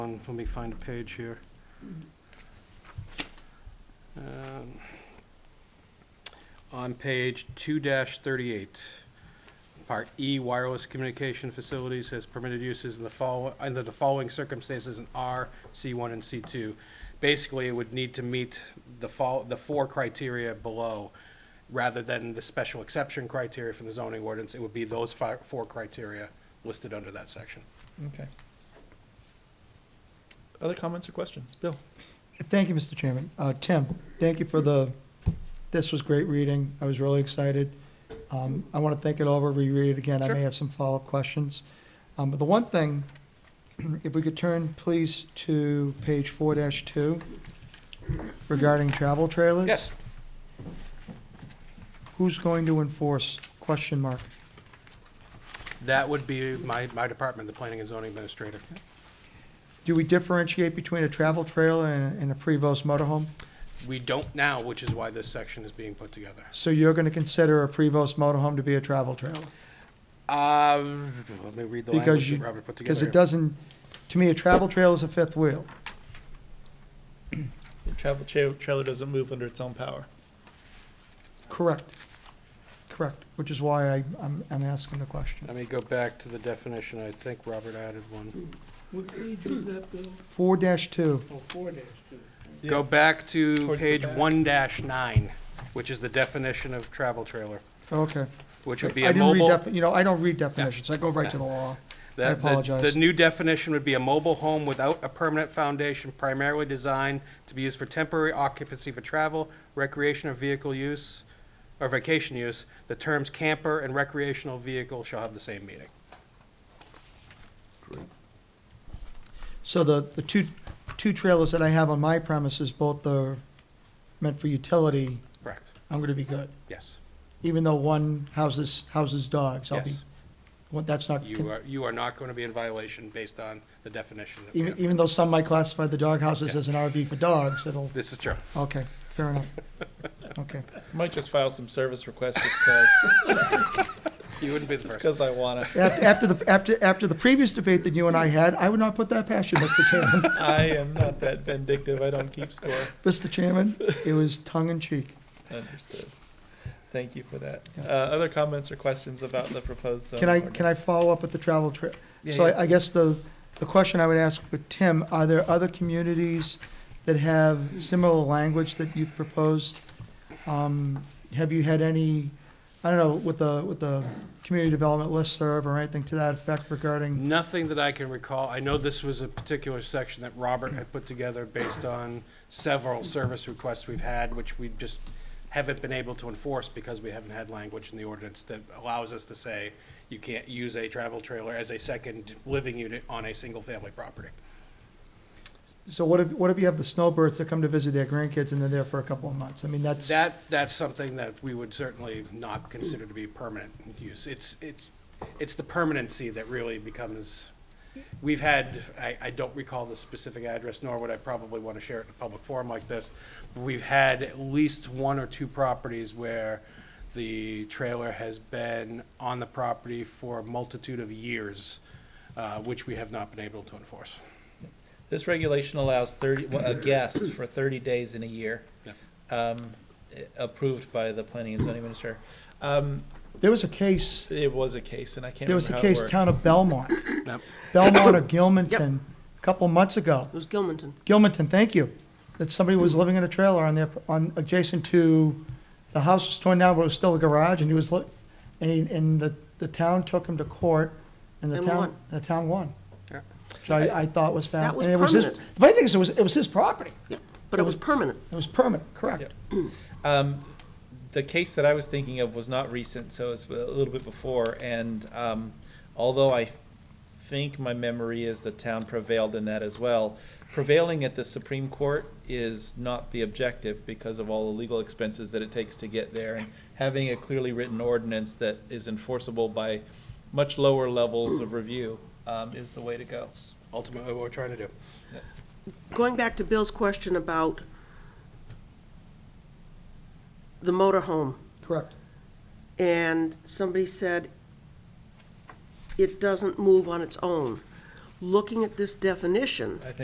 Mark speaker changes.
Speaker 1: Um, Let me find a page here. Um, On page two thirty-eight, part E, wireless communication facilities has permitted uses in the follow, under the following circumstances in R, C one and C two. Basically, it would need to meet the fol, the four criteria below, rather than the special exception criteria from the zoning ordinance. It would be those fi, four criteria listed under that section.
Speaker 2: Okay. Other comments or questions? Bill?
Speaker 3: Thank you, Mr. Chairman. Uh, Tim, thank you for the, this was great reading. I was really excited. Um, I want to think it over, reread it again. I
Speaker 2: Sure.
Speaker 3: may have some follow-up questions. Um, But the one thing, if we could turn, please, to page four two regarding travel trailers.
Speaker 1: Yes,
Speaker 3: Who's going to enforce? Question mark.
Speaker 1: that would be my, my department, the planning and zoning administrator.
Speaker 3: Do we differentiate between a travel trailer and and a Prevost motorhome?
Speaker 1: We don't now, which is why this section is being put together.
Speaker 3: So you're going to consider a Prevost motorhome to be a travel trailer?
Speaker 1: Um, let me read the
Speaker 3: Because
Speaker 1: language
Speaker 3: you,
Speaker 1: that Robert put
Speaker 3: because
Speaker 1: together.
Speaker 3: it doesn't, to me, a travel trail is a fifth wheel.
Speaker 2: Your travel cha- trailer doesn't move under its own power.
Speaker 3: Correct. Correct, which is why I, I'm, I'm asking the question.
Speaker 1: Let me go back to the definition. I think Robert added one.
Speaker 4: What page is that, Bill?
Speaker 3: Four dash two,
Speaker 4: Oh, four dash two.
Speaker 1: Go back to
Speaker 2: Towards the
Speaker 1: page
Speaker 2: back.
Speaker 1: one dash nine, which is the definition of travel trailer,
Speaker 3: okay.
Speaker 1: which
Speaker 3: I
Speaker 1: would be a
Speaker 3: didn't read
Speaker 1: mobile.
Speaker 3: defi- You know, I don't read definitions, I go right to the law.
Speaker 1: the-
Speaker 3: I
Speaker 1: the-
Speaker 3: apologize.
Speaker 1: The new definition would be a mobile home without a permanent foundation primarily designed to be used for temporary occupancy for travel, recreation or vehicle use, or vacation use. The terms camper and recreational vehicle shall have the same meaning.
Speaker 3: So the, the two, two trailers that I have on my premises, both are meant for utility,
Speaker 1: Correct.
Speaker 3: I'm gonna be good.
Speaker 1: Yes.
Speaker 3: Even though one houses, houses dogs, I'll be,
Speaker 1: Yes.
Speaker 3: well, that's not,
Speaker 1: You are, you are not going to be in violation based on the definition that we
Speaker 3: even,
Speaker 1: have.
Speaker 3: even though some might classify the dog houses
Speaker 1: Yeah.
Speaker 3: as an RV for dogs, it'll,
Speaker 1: This is true.
Speaker 3: okay, fair enough. Okay.
Speaker 2: Might just file some service requests just because,
Speaker 1: You wouldn't be the first.
Speaker 2: I want to.
Speaker 3: After, after the after after the previous debate that you and I had, I would not put that past you, Mr. Chairman.
Speaker 2: I am not that vindictive. I don't keep score.
Speaker 3: Mr. Chairman, it was tongue in cheek.
Speaker 2: Understood. Thank you for that. Uh,
Speaker 3: Yeah.
Speaker 2: other comments or questions about the proposed zoning
Speaker 3: Can I can I
Speaker 2: ordinance?
Speaker 3: follow up with the travel trip?
Speaker 2: Yeah,
Speaker 3: So
Speaker 2: yeah,
Speaker 3: I, I guess the the question I would ask with Tim: Are there other communities that have similar language that you've proposed? Um, have you had any? I don't know with the with the community development listserv or anything to that effect regarding.
Speaker 1: Nothing that I can recall. I know this was a particular section that Robert had put together based on several service requests we've had, which we just haven't been able to enforce because we haven't had language in the ordinance that allows us to say you can't use a travel trailer as a second living unit on a single-family property.
Speaker 3: So what if what if you have the snowbirds that come to visit their grandkids and they're there for a couple of months? I mean that's
Speaker 1: That, that's something that we would certainly not consider to be permanent use. It's, it's, it's the permanency that really becomes, we've had, I, I don't recall the specific address, nor would I probably want to share it in a public forum like this. but We've had at least one or two properties where the trailer has been on the property for a multitude of years, uh, which we have not been able to enforce.
Speaker 5: This regulation allows thirty, well, a guest for thirty days in a year.
Speaker 1: Yep.
Speaker 5: Um, eh, approved by the planning and zoning minister. Um,
Speaker 3: there was a case
Speaker 2: It was a case and I can't
Speaker 3: There was
Speaker 2: remember
Speaker 3: a
Speaker 2: how it
Speaker 3: case,
Speaker 2: worked.
Speaker 3: town of Belmont,
Speaker 1: Yep.
Speaker 3: Belmont or Gilmanton, a couple months ago.
Speaker 4: It was Gilmanton.
Speaker 3: Gilmanton, thank you, that somebody was living in a trailer on their, on, adjacent to, the house was torn down, but it was still a garage, and he was, li- and, he- and the, the town took him to court, and the
Speaker 4: And
Speaker 3: town,
Speaker 4: won.
Speaker 3: the town won.
Speaker 1: Yeah.
Speaker 3: Which I, I thought was found.
Speaker 4: That was
Speaker 3: and it his-
Speaker 4: permanent.
Speaker 3: The funny thing is, it was, it was his property,
Speaker 4: Yeah, but it was permanent.
Speaker 3: it was permanent, correct.
Speaker 5: um, the case that I was thinking of was not recent, so it's a little bit before, and, um, although I think my memory is the town prevailed in that as well. Prevailing at the Supreme Court is not the objective because of all the legal expenses that it takes to get there. And having a clearly written ordinance that is enforceable by much lower levels of review, um, is the way to go.
Speaker 1: Ultimately, what we're trying to do.
Speaker 4: Going back to Bill's question about the motorhome,
Speaker 3: Correct.
Speaker 4: and somebody said it doesn't move on its own.
Speaker 6: looking at this definition,
Speaker 4: I think